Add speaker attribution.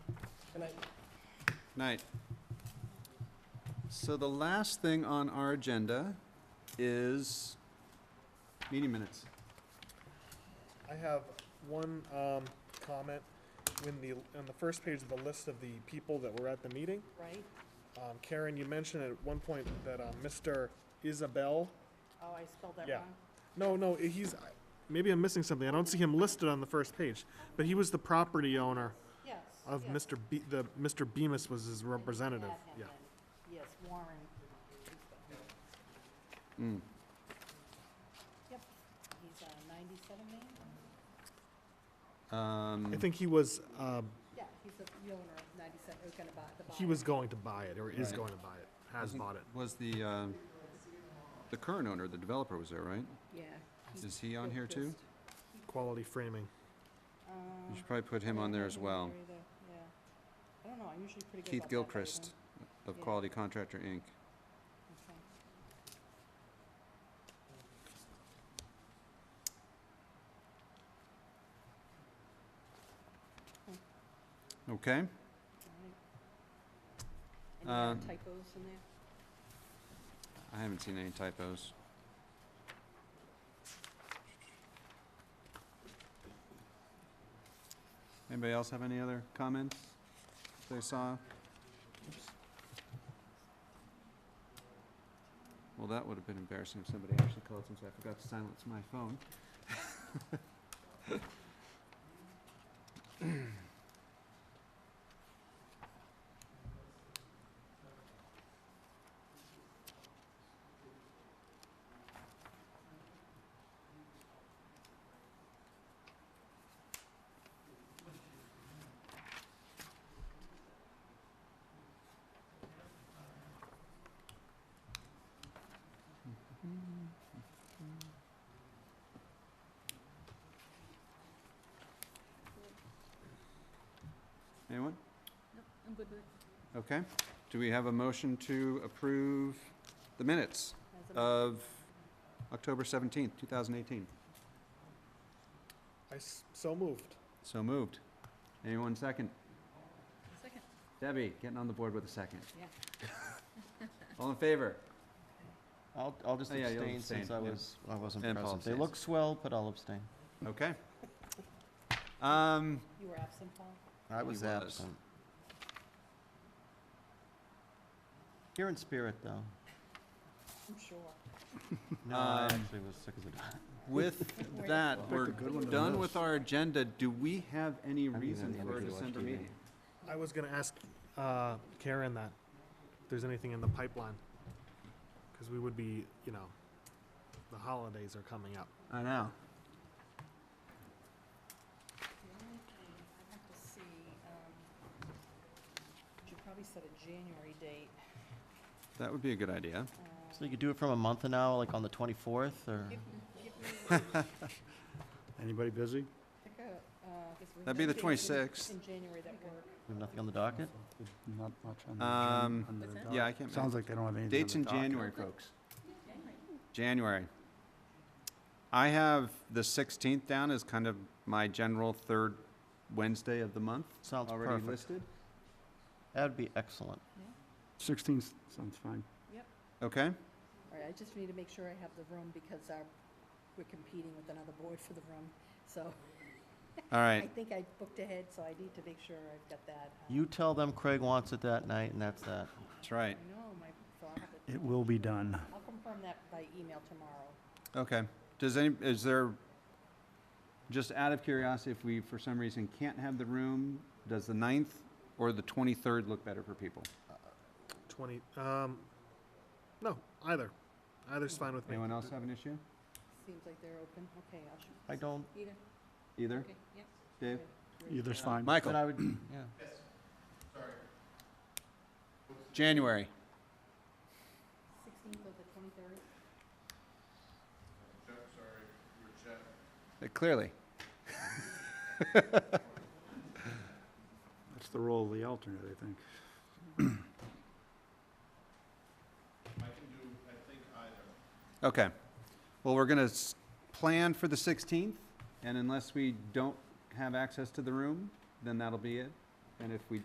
Speaker 1: Can I,
Speaker 2: Night. So the last thing on our agenda is meeting minutes.
Speaker 1: I have one, um, comment. When the, on the first page of the list of the people that were at the meeting,
Speaker 3: right?
Speaker 1: um, Karen, you mentioned at one point that, um, Mr. Isabel,
Speaker 3: Oh, I spelled that
Speaker 1: Yeah.
Speaker 3: wrong.
Speaker 1: no, no, he's, maybe I'm missing something. I don't see him listed on the first page, but he was the property owner
Speaker 3: Yes.
Speaker 1: of
Speaker 3: yes.
Speaker 1: Mr. Be, the, Mr. Bemis was his
Speaker 3: I didn't add
Speaker 1: representative,
Speaker 3: him
Speaker 1: yeah.
Speaker 3: in. Yes, Warren.
Speaker 2: Mm.
Speaker 3: Yep, he's uh, 97 man?
Speaker 2: Um,
Speaker 1: I think he was, uh,
Speaker 3: Yeah, he's the the owner of 97, who's gonna buy the buyer.
Speaker 1: he was going to buy it, or is
Speaker 2: Right.
Speaker 1: going to buy it,
Speaker 2: I
Speaker 1: has
Speaker 2: think
Speaker 1: bought it.
Speaker 2: Was the, uh, the current owner, the developer was there, right?
Speaker 3: Yeah. he
Speaker 2: Is he on
Speaker 3: built
Speaker 2: here
Speaker 3: this.
Speaker 2: too?
Speaker 1: Quality framing.
Speaker 3: Uh,
Speaker 2: You should probably put him
Speaker 3: I
Speaker 2: on
Speaker 3: don't
Speaker 2: there
Speaker 3: have
Speaker 2: as
Speaker 3: him on
Speaker 2: well.
Speaker 3: there either, Yeah. I don't know, I'm usually pretty good
Speaker 2: Keith
Speaker 3: about that, but I
Speaker 2: Gilchrist of
Speaker 3: Yeah.
Speaker 2: Quality Contractor, Inc.
Speaker 3: don't- okay.
Speaker 2: Okay?
Speaker 3: All right. Any
Speaker 2: Uh,
Speaker 3: other typos in there?
Speaker 2: I haven't seen any typos. Anybody else have any other comments they saw? Well, that would have been embarrassing if somebody actually called since I forgot to silence my phone. Anyone?
Speaker 3: Nope, I'm good with it.
Speaker 2: Okay. Do we have a motion to approve the minutes
Speaker 3: As a-
Speaker 2: of October seventeenth, two thousand eighteen?
Speaker 1: I s- so moved.
Speaker 2: So moved. Anyone second?
Speaker 3: Second.
Speaker 2: Debbie, getting on the board with a second.
Speaker 3: Yeah.
Speaker 2: All in favor?
Speaker 4: I'll, I'll just
Speaker 2: Oh, yeah, you'll
Speaker 4: abstain since I
Speaker 2: abstain, yeah.
Speaker 4: was, I wasn't
Speaker 2: And Paul
Speaker 4: present. They
Speaker 2: abstains.
Speaker 4: look swell, but I'll abstain.
Speaker 2: Okay. Um,
Speaker 3: You were absent, Paul?
Speaker 4: I
Speaker 2: He
Speaker 4: was
Speaker 2: was.
Speaker 4: absent. Here in spirit, though.
Speaker 3: I'm sure.
Speaker 4: No, I
Speaker 2: Um,
Speaker 4: actually was sick as a dog.
Speaker 2: with that,
Speaker 4: Picked a
Speaker 2: we're
Speaker 4: good one to
Speaker 2: done
Speaker 4: lose.
Speaker 2: with our agenda. Do we have any
Speaker 4: I haven't
Speaker 2: reason
Speaker 4: had the
Speaker 2: for a
Speaker 4: energy to watch
Speaker 2: December
Speaker 4: TV.
Speaker 2: meeting?
Speaker 1: I was gonna ask uh, Karen that, if there's anything in the pipeline, because we would be, you know, the holidays are coming up.
Speaker 2: I know.
Speaker 3: The only thing I'd have to see, um, we should probably set a January date.
Speaker 2: That would be a good idea.
Speaker 4: So you could do it from a month and now, like on the 24th, or?
Speaker 3: Give, give me,
Speaker 5: Anybody busy?
Speaker 3: pick a, uh, guess we
Speaker 2: That'd be the
Speaker 3: have things in-
Speaker 2: 26th.
Speaker 3: In January that work.
Speaker 4: We have nothing on the docket?
Speaker 5: Not much on the
Speaker 2: Um,
Speaker 5: agenda- under the
Speaker 3: What's
Speaker 5: doc.
Speaker 2: Yeah, I can't.
Speaker 5: Sounds like they don't have anything on the
Speaker 2: Dates in
Speaker 5: docket.
Speaker 2: January, folks. January. I have the sixteenth down as kind of my general third Wednesday of the month.
Speaker 4: Sounds
Speaker 2: Already
Speaker 4: perfect.
Speaker 2: listed.
Speaker 4: That would be excellent.
Speaker 5: Sixteenth sounds fine.
Speaker 2: Okay.
Speaker 3: All right, I just need to make sure I have the room because our, we're competing with another board for the room. So
Speaker 2: All
Speaker 3: I
Speaker 2: right.
Speaker 3: think I booked ahead, so I need to make sure I've got that. uh,
Speaker 4: You tell them Craig wants it that night, and that's that.
Speaker 2: That's
Speaker 3: I
Speaker 2: right.
Speaker 3: know, my, so I'll have it,
Speaker 5: It will be done.
Speaker 3: I'll confirm that by email tomorrow.
Speaker 2: Okay. Does any, is there, just out of curiosity, if we for some reason can't have the room, does the ninth or the twenty-third look better for people?
Speaker 1: Twenty, um, no, either, either's fine with me.
Speaker 2: Anyone else have an issue?
Speaker 3: Seems like they're open. Okay, I'll shoot.
Speaker 4: I don't,
Speaker 3: Either,
Speaker 2: Either?
Speaker 3: okay, yep.
Speaker 2: Dave?
Speaker 5: Either's fine.
Speaker 4: but
Speaker 2: Michael?
Speaker 4: I would, yeah.
Speaker 2: January.
Speaker 3: Sixteenth of the twenty-third.
Speaker 2: Uh, Clearly.
Speaker 5: That's the role of the alternate, I think.
Speaker 2: Okay. Well, we're gonna s- plan for the sixteenth, and unless we don't have access to the room, then that'll be it. And if we